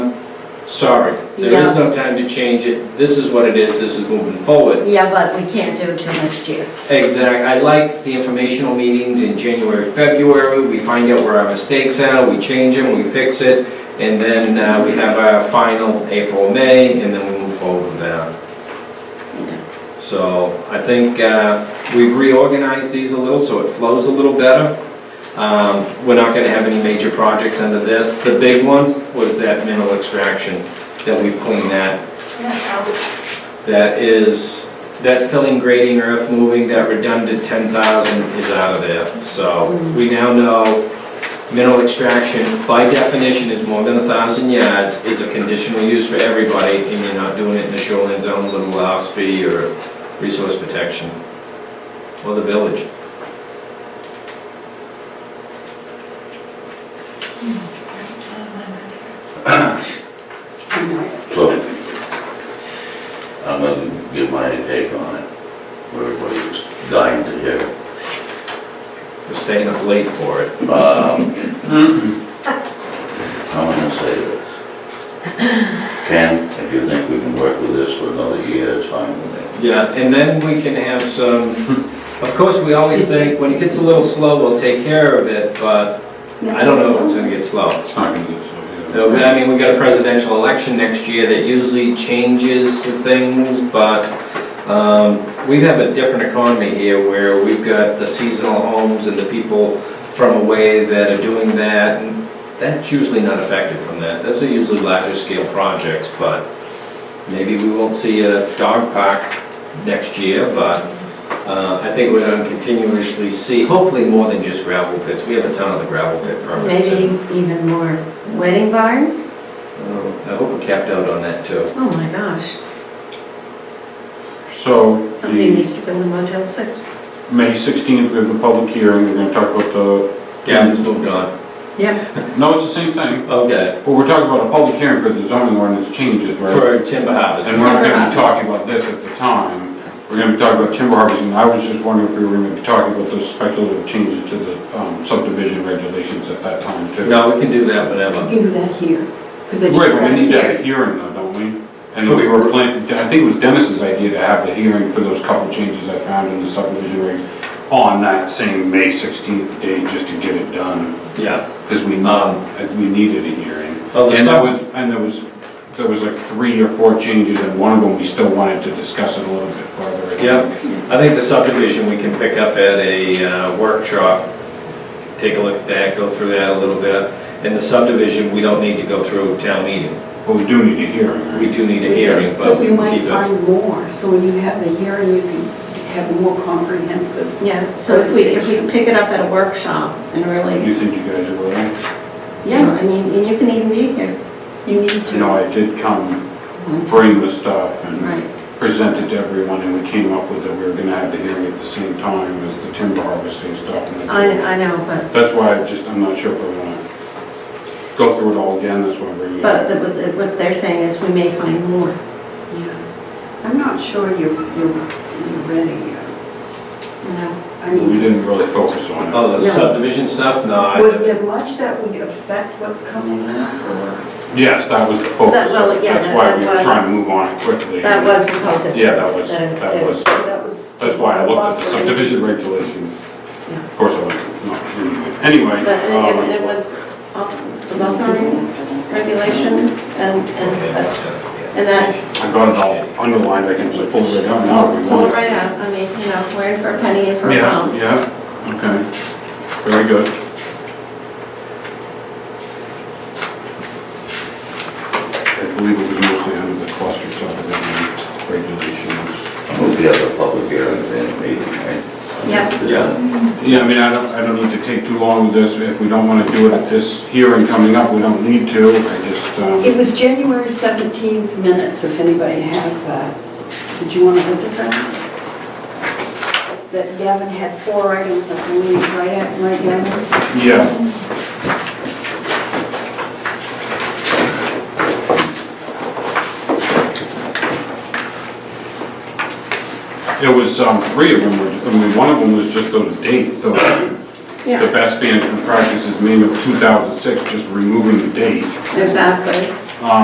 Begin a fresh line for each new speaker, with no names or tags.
sorry, there
Yeah.
is no time to change it, this is what it is, this is moving forward.
Yeah, but we can't do it till next year.
Exact, I like the informational meetings in January, February, we find out where our mistakes are, we change them, we fix it, and then uh, we have our final April, May, and then we move forward with that. So I think uh, we've reorganized these a little, so it flows a little better. Um, We're not gonna have any major projects under this. The big one was that mineral extraction, that we've cleaned that that is, that filling, grading, earth moving, that redundant 10,000 is out of there. So we now know mineral extraction, by definition, is more than 1,000 yards, is a conditional use for everybody, and you're not doing it in the shoreline zone, little loss fee, or resource protection, or the village.
So, I'm gonna give my take on it, what everybody's dying to hear.
We're staying up late for it.
Um, I'm gonna say this. Ken, if you think we can work with this for another year, it's fine with me.
Yeah, and then we can have some, of course, we always think, when it gets a little slow, we'll take care of it, but I don't know if it's gonna get slow.
It's not gonna do so, yeah.
No, but I mean, we got a presidential election next year that usually changes the things, but um, we have a different economy here where we've got the seasonal homes and the people from away that are doing that. and That's usually not affected from that. Those are usually larger scale projects, but maybe we won't see a dog park next year, but uh, I think we're gonna continuously see, hopefully more than just gravel pits. We have a ton of the gravel pit permits. in-
Maybe even more wedding barns?
Oh, I hope we capped out on that too.
Oh my gosh,
So,
somebody
the
needs to build a Motel 6.
May 16th, we have the public hearing, we're gonna talk about the,
Gavin's moved on.
Yeah,
no, it's the same thing,
Okay.
but we're talking about a public hearing for the zoning ordinance changes, right?
For timber harvest.
And we're not gonna be talking about this at the time, we're gonna be talking about timber harvesting, I was just wondering if we were gonna be talking about those speculative changes to the um, subdivision regulations at that time too.
No, we can do that whenever.
do that here, because they just
Right,
got
we need to have
here.
a hearing though, don't we? And we were planning, I think it was Dennis's idea to have the hearing for those couple changes I found in the subdivision regs on that same May 16th day, just to get it done,
Yeah.
because we need, we needed a hearing.
Well, the
And that
sub-
was, and there was, there was like three or four changes, and one of them, we still wanted to discuss it a little bit further. I think.
Yeah. I think the subdivision we can pick up at a uh, workshop, take a look at that, go through that a little bit. And the subdivision, we don't need to go through town meeting.
But we do need a hearing, right?
We do need a hearing, but we
we
can
might
keep it.
find more, so when you have the hearing, you can have a more comprehensive.
yeah, so if we, if we pick it up at a workshop and really,
You think you guys are willing?
yeah, I mean, and you can even be here.
You need
You
to.
know, I did come bring the stuff and.
Right,
presented to everyone, and we came up with that we were gonna have the hearing at the same time as the timber harvesting stuff. and the-
I, I know, but,
That's why I just, I'm not sure if I wanna go through it all again, that's why I'm bringing it
but
up.
the- what the- what they're saying is we may find more.
Yeah. I'm not sure you're, you're you're ready yet.
you know.
I
We
mean,
didn't really focus on it.
Oh, the
No.
subdivision stuff? No. I-
was there much that would affect what's coming up, or?
Yes, that was the focus,
That- well, yeah,
that's why
that
we
was-
were trying to move on it quickly.
That was the focus.
Yeah, that was,
That-
that was,
That was.
that's why I looked at the subdivision regulations.
Yeah.
Of course, I was, not, anyway.
But it- it, it
um,
was also the buffering regulations and, and such. And that,
I've got it all underlined, I can just pull it out now if we
pull
want.
it right out, I mean, you know, we're in for a penny and for a
Yeah,
pound.
yeah, okay, very good. I believe it was mostly under the cluster subdivision regulations.
We'll be at the public hearing in the meeting, right?
Yeah.
Yeah.
Yeah, I mean, I don't, I don't need to take too long with this, if we don't wanna do it at this hearing coming up, we don't need to, I just,
It
um,
was January 17th minutes, if anybody has that. Did you want to look at that? That Gavin had four items that we need right at, right now.
yeah. It was, um, three of them, were- I mean, one of them was just those date, those the
Yeah,
best management practices manual 2006, just removing the date.
exactly.